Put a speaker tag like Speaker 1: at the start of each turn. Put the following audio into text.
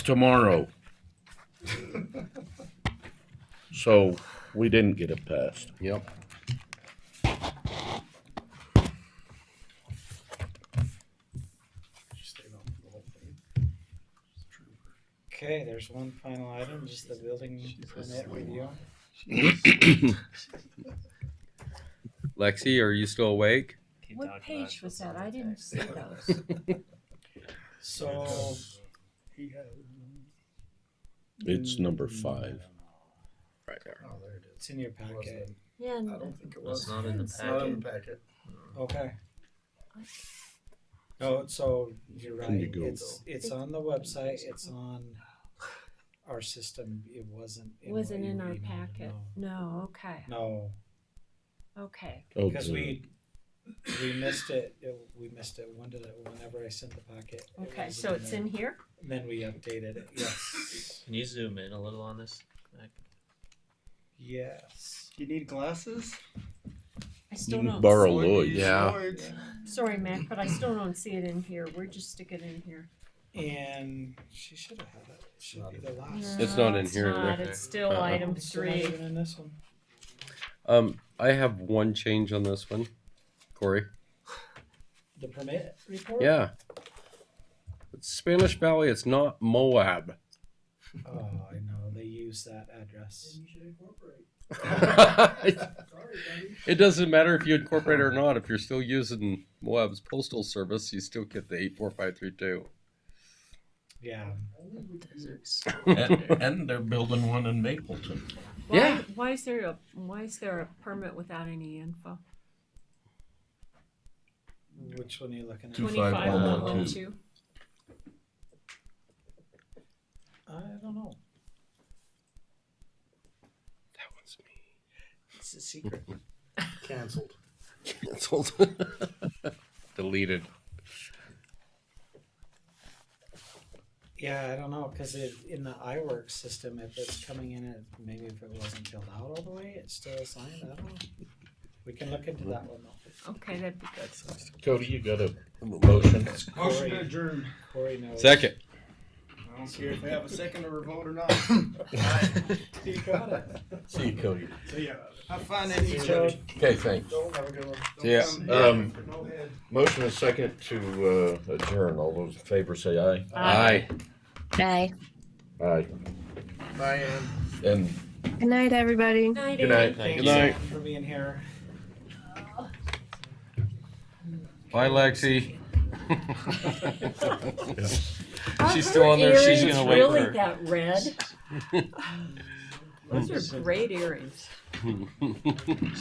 Speaker 1: tomorrow. So we didn't get it passed.
Speaker 2: Yep.
Speaker 3: Okay, there's one final item, just the building permit review.
Speaker 4: Lexi, are you still awake?
Speaker 5: What page was that? I didn't see those.
Speaker 3: So.
Speaker 1: It's number five.
Speaker 2: Right there.
Speaker 6: Oh, there it is.
Speaker 3: It's in your packet.
Speaker 5: Yeah,
Speaker 6: I
Speaker 5: and
Speaker 6: don't think it
Speaker 4: That's
Speaker 6: was.
Speaker 4: not in the
Speaker 6: It's not in the packet.
Speaker 3: Okay. No, so you're
Speaker 1: Can you
Speaker 3: right.
Speaker 1: go-
Speaker 3: It's, it's on the website. It's on our system. It wasn't.
Speaker 5: it
Speaker 3: what
Speaker 5: wasn't
Speaker 3: you
Speaker 5: in our
Speaker 3: emailed,
Speaker 5: packet. No, okay,
Speaker 3: No,
Speaker 5: okay.
Speaker 1: Oh,
Speaker 3: because
Speaker 1: good.
Speaker 3: we, we missed it. It- We missed it. When did it, whenever I sent the packet. it
Speaker 5: Okay,
Speaker 3: wasn't
Speaker 5: so it's
Speaker 3: there.
Speaker 5: in here?
Speaker 3: Then we updated it. Yes.
Speaker 4: Can you zoom in a little on this?
Speaker 3: Yes.
Speaker 6: Do you need glasses?
Speaker 5: I
Speaker 1: You
Speaker 5: still
Speaker 1: can
Speaker 5: don't.
Speaker 1: borrow
Speaker 6: Or do
Speaker 1: Lloyd's.
Speaker 6: you use
Speaker 2: Yeah.
Speaker 6: Lloyd's?
Speaker 5: see- Sorry, Mac, but I still don't see it in here. We're just sticking in here.
Speaker 3: And she should have had it. It should be the last.
Speaker 2: It's not
Speaker 5: No,
Speaker 2: in here
Speaker 5: It's
Speaker 2: either.
Speaker 5: not, it's still
Speaker 2: Uh-uh.
Speaker 5: item
Speaker 3: It's still not
Speaker 5: three.
Speaker 3: even in this one.
Speaker 2: Um, I have one change on this one, Corey.
Speaker 3: The permit report?
Speaker 2: Yeah. It's Spanish Valley. It's not Moab.
Speaker 3: Oh, I know. They use that address.
Speaker 2: it doesn't matter if you incorporate it or not. If you're still using Moab's postal service, you still get the eight four five three two.
Speaker 3: Yeah.
Speaker 1: And, and they're building one in Mapleton.
Speaker 5: Why-
Speaker 2: Yeah.
Speaker 5: Why is there a, why is there a permit without any info?
Speaker 3: Which one are you looking at?
Speaker 1: Two five
Speaker 5: Twenty-five
Speaker 1: one
Speaker 5: one
Speaker 1: one
Speaker 5: one
Speaker 1: two.
Speaker 5: two.
Speaker 3: I don't know.
Speaker 2: That one's me.
Speaker 3: It's a secret.
Speaker 6: Cancelled.
Speaker 2: Cancelled. Deleted.
Speaker 3: Yeah, I don't know because it in the iWorks system, if it's coming in, it, maybe if it wasn't filled out all the way, it's still assigned. I don't know. We can look into that one though.
Speaker 5: Okay, that'd be good.
Speaker 1: Cody, you got a motion?
Speaker 3: Motion to
Speaker 6: adjourn.
Speaker 3: Corey knows.
Speaker 2: Second.
Speaker 6: I don't care if they have a second or a vote or not.
Speaker 3: You got it.
Speaker 1: See you, Cody.
Speaker 6: So yeah, have fun in each
Speaker 3: So-
Speaker 6: other.
Speaker 1: Okay, thanks.
Speaker 6: Don't have a good one. Don't
Speaker 2: Yeah.
Speaker 6: come
Speaker 1: Um,
Speaker 6: here. No head.
Speaker 1: Motion is second to uh, adjourn. All those in favor say aye.
Speaker 2: Aye.
Speaker 7: Bye.
Speaker 1: Aye.
Speaker 6: Bye, Ann.
Speaker 1: And
Speaker 7: Good night, everybody.
Speaker 5: night,
Speaker 1: good
Speaker 5: Ann.
Speaker 1: night.
Speaker 3: Thank
Speaker 2: Good
Speaker 3: you
Speaker 2: night.
Speaker 3: for being here.
Speaker 2: Bye, Lexi.
Speaker 5: Are
Speaker 2: She's
Speaker 5: her
Speaker 2: still on there. She's
Speaker 5: earrings
Speaker 2: gonna wait
Speaker 5: Really
Speaker 2: for-
Speaker 5: that red? Those are great earrings.